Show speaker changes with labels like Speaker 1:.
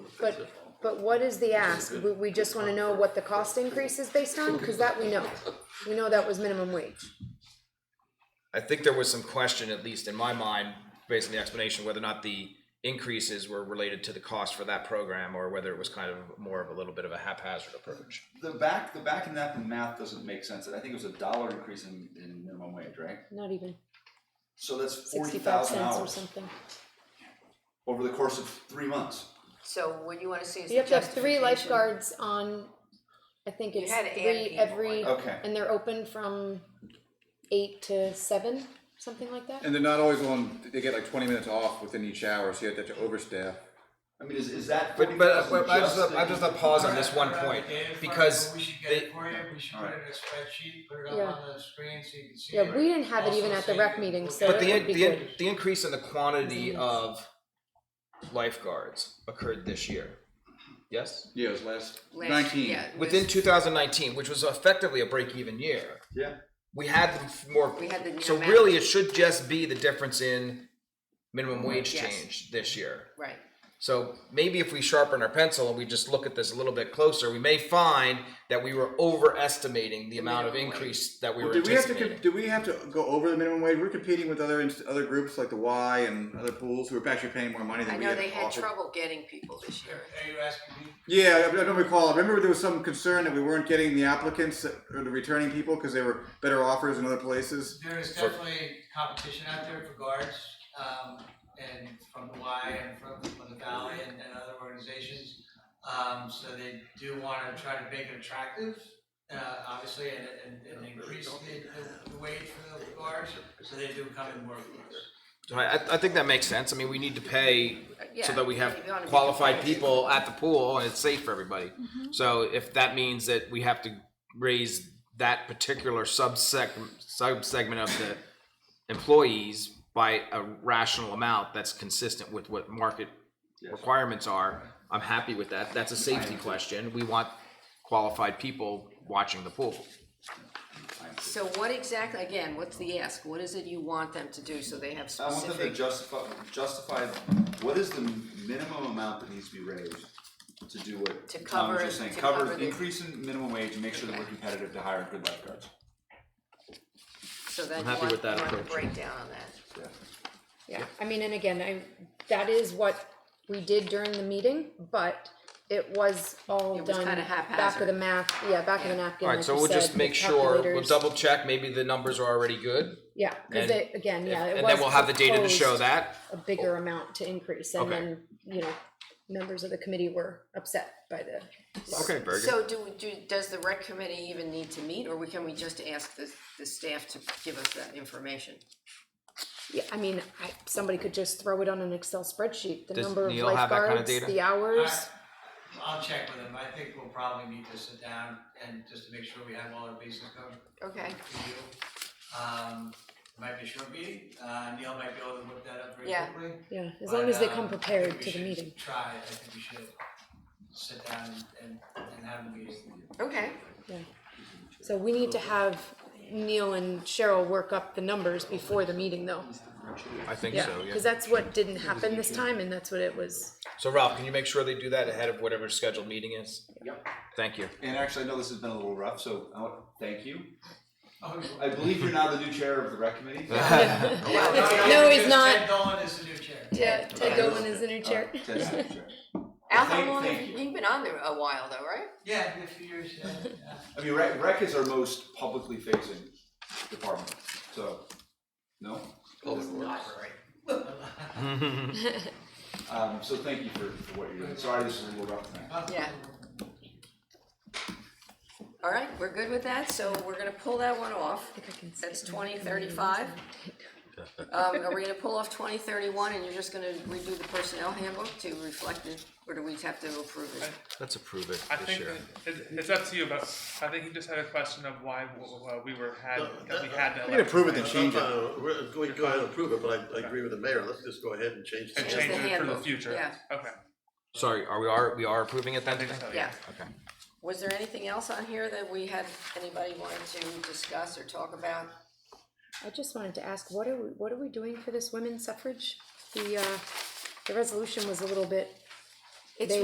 Speaker 1: But, but what is the ask? We, we just wanna know what the cost increase is based on, cause that we know. We know that was minimum wage.
Speaker 2: I think there was some question, at least in my mind, based on the explanation, whether or not the increases were related to the cost for that program or whether it was kind of more of a little bit of a haphazard approach.
Speaker 3: The back, the back in that, the math doesn't make sense. I think it was a dollar increase in, in minimum wage, right?
Speaker 1: Not even
Speaker 3: So that's forty
Speaker 1: sixty-five
Speaker 3: thousand
Speaker 1: cents or
Speaker 3: hours
Speaker 1: something.
Speaker 3: over the course of three months.
Speaker 4: So what you wanna see is the
Speaker 1: You have to have three
Speaker 4: justification.
Speaker 1: lifeguards on, I think
Speaker 4: You
Speaker 1: it's
Speaker 4: had to add
Speaker 1: three
Speaker 4: people,
Speaker 1: every,
Speaker 3: like- Okay.
Speaker 1: and they're open from eight to seven, something like that?
Speaker 5: And they're not always on, they get like twenty minutes off within each hour, so you have to overstaff.
Speaker 3: I mean, is, is that forty
Speaker 2: But, but,
Speaker 3: thousand
Speaker 2: but I just,
Speaker 3: just?
Speaker 2: I just want to pause on this one point because
Speaker 6: We should get
Speaker 2: they,
Speaker 6: it for you, we should put it in a spreadsheet, put it
Speaker 1: Yeah.
Speaker 6: up on the screen so you can see it.
Speaker 1: Yeah, we didn't have it even at the rec meeting, so
Speaker 2: but
Speaker 1: it
Speaker 2: the,
Speaker 1: would be
Speaker 2: the,
Speaker 1: good.
Speaker 2: the increase in the quantity of lifeguards occurred this year. Yes?
Speaker 5: Yeah, it was last
Speaker 4: Last-
Speaker 5: nineteen.
Speaker 4: yeah, it was-
Speaker 2: Within 2019, which was effectively a break even year.
Speaker 3: Yeah,
Speaker 2: we had the f- more.
Speaker 4: We had the
Speaker 2: so
Speaker 4: amount.
Speaker 2: really, it should just be the difference in minimum wage
Speaker 4: Yes.
Speaker 2: change this year.
Speaker 4: Right,
Speaker 2: So maybe if we sharpen our pencil and we just look at this a little bit closer, we may find that we were overestimating the amount of
Speaker 4: minimum wage.
Speaker 2: increase that we were
Speaker 5: Did we have to,
Speaker 2: anticipating.
Speaker 5: co- do we have to go over the minimum wage? We're competing with other, inst- other groups like the Y and other pools who are actually paying more money
Speaker 4: I
Speaker 5: than we
Speaker 4: know
Speaker 5: had
Speaker 4: they had
Speaker 5: offered.
Speaker 4: trouble getting people this year.
Speaker 6: Are you asking me?
Speaker 5: Yeah, I I don't recall. I remember there was some concern that we weren't getting the applicants that- or the returning people because they were better offers in other places.
Speaker 6: There is definitely competition out there for guards, um, and from the Y and from, from the Valley and, and other organizations. Um, so they do wanna try to make it attractive, uh, obviously, and, and, and increase the, the wage for the guards, so they do come in more for us.
Speaker 2: So I, I- I think that makes sense. I mean, we need to pay so
Speaker 4: Uh, yeah,
Speaker 2: that we have
Speaker 4: you wanna be
Speaker 2: qualified
Speaker 4: competitive.
Speaker 2: people at the pool and it's safe for everybody.
Speaker 1: Mm-hmm.
Speaker 2: So if that means that we have to raise that particular subsec subsegment of the employees by a rational amount that's consistent with what market requirements are, I'm happy with that. That's a safety question. We want qualified people watching the pool.
Speaker 4: So what exactly, again, what's the ask? What is it you want them to do so they have
Speaker 3: I want them to
Speaker 4: specific?
Speaker 3: justify, justify, what is the minimum amount that needs to be raised to do what
Speaker 4: To
Speaker 3: Tom was
Speaker 4: cover-
Speaker 3: just saying?
Speaker 4: to
Speaker 3: Cover,
Speaker 4: cover the-
Speaker 3: increase in minimum wage and make sure that we're
Speaker 4: Okay.
Speaker 3: competitive to hire good lifeguards.
Speaker 4: So that you
Speaker 2: happy
Speaker 4: want,
Speaker 2: with
Speaker 4: you
Speaker 2: that
Speaker 4: want the
Speaker 2: approach.
Speaker 4: breakdown on that.
Speaker 3: Yeah.
Speaker 1: Yeah, I mean, and again, I, that is what we did during the meeting, but it was all
Speaker 4: It was
Speaker 1: done
Speaker 4: kinda
Speaker 1: back of
Speaker 4: haphazard.
Speaker 1: the math, yeah, back of the napkin,
Speaker 4: Yeah.
Speaker 1: like
Speaker 2: Alright,
Speaker 1: you
Speaker 2: so we'll just
Speaker 1: said,
Speaker 2: make
Speaker 1: with
Speaker 2: sure, we'll
Speaker 1: calculators.
Speaker 2: double check, maybe the numbers are already good.
Speaker 1: Yeah, cause
Speaker 2: and
Speaker 1: they, again, yeah, it was.
Speaker 2: And then we'll have the data to show
Speaker 1: proposed
Speaker 2: that.
Speaker 1: A bigger amount to increase and
Speaker 2: Okay.
Speaker 1: then, you know, members of the committee were upset by the.
Speaker 2: Okay, very good.
Speaker 4: So do, we- do, does the rec committee even need to meet, or we, can we just ask the, the staff to give us that information?
Speaker 1: Yeah, I mean, I, somebody could just throw it on an Excel spreadsheet, the
Speaker 2: Does
Speaker 1: number of
Speaker 2: Neil have that kinda
Speaker 1: lifeguards,
Speaker 2: data?
Speaker 1: the hours.
Speaker 6: I- I'll check with them, I think we'll probably need to sit down and just to make sure we have all our bases covered.
Speaker 4: Okay,
Speaker 6: for you. Um, it might be a short meeting, uh, Neil might be able to whip that up very
Speaker 4: Yeah.
Speaker 6: quickly.
Speaker 1: Yeah, as
Speaker 6: but,
Speaker 1: long as they
Speaker 6: um,
Speaker 1: come
Speaker 6: I think
Speaker 1: prepared
Speaker 6: we
Speaker 1: to the
Speaker 6: should
Speaker 1: meeting.
Speaker 6: Try, it. I think we should sit down and, and- and have a meeting.
Speaker 4: okay,
Speaker 1: So we need to have Neil and Cheryl work up the numbers before the meeting though.
Speaker 2: I think
Speaker 1: Yeah, cause that's what didn't happen this time and that's what it was.
Speaker 2: So Ralph, can you make sure they do that ahead of whatever scheduled meeting is?
Speaker 3: Yep.
Speaker 2: Thank you.
Speaker 3: And actually, I know this has been a little rough, so I want, thank you.
Speaker 6: Oh, you-
Speaker 3: I believe you're now the new chair of the rec committee.
Speaker 6: no,
Speaker 1: No, he's
Speaker 6: because
Speaker 1: not.
Speaker 6: Ted Dolan is the new chair.
Speaker 1: Yeah, Ted Oh, Dolan is in her
Speaker 3: Uh,
Speaker 1: chair.
Speaker 3: Ted's the new chair.
Speaker 4: Al, how
Speaker 3: Thank-
Speaker 4: long have
Speaker 3: thank
Speaker 4: you
Speaker 3: you.
Speaker 4: you've been on there a while though, right?
Speaker 6: Yeah, in a few years, yeah, yeah.
Speaker 3: I mean, rec, rec is our most publicly facing department, so, no? Um, so thank you for, for what you're doing. Sorry, this is a little rough tonight.
Speaker 4: Yeah. All right, we're good with that, so we're gonna pull that one off. That's twenty thirty-five. Um, are we gonna pull off twenty thirty-one and you're just gonna redo the personnel handbook to reflect it, or do we have to approve it?
Speaker 2: Let's approve it
Speaker 7: I
Speaker 2: this
Speaker 7: think
Speaker 2: year.
Speaker 7: that- it, it's up to you, but I think he just had a question of why w- uh, we were had that we had that.
Speaker 5: We can approve it then change it.
Speaker 8: Uh, we're- We can go ahead and approve it, but I, I agree with the mayor, let's just go ahead and change the
Speaker 7: And
Speaker 4: Just
Speaker 7: change
Speaker 4: the
Speaker 7: it for the
Speaker 4: handbook,
Speaker 7: future.
Speaker 4: yeah.
Speaker 7: Okay.
Speaker 2: Sorry, are we are we are approving it then?
Speaker 7: I think so,
Speaker 4: Yeah.
Speaker 2: Okay.
Speaker 4: Was there anything else on here that we had, anybody wanted to discuss or talk about?
Speaker 1: I just wanted to ask, what are we, what are we doing for this women's suffrage? The, uh, the resolution was a little bit
Speaker 4: It's
Speaker 1: They-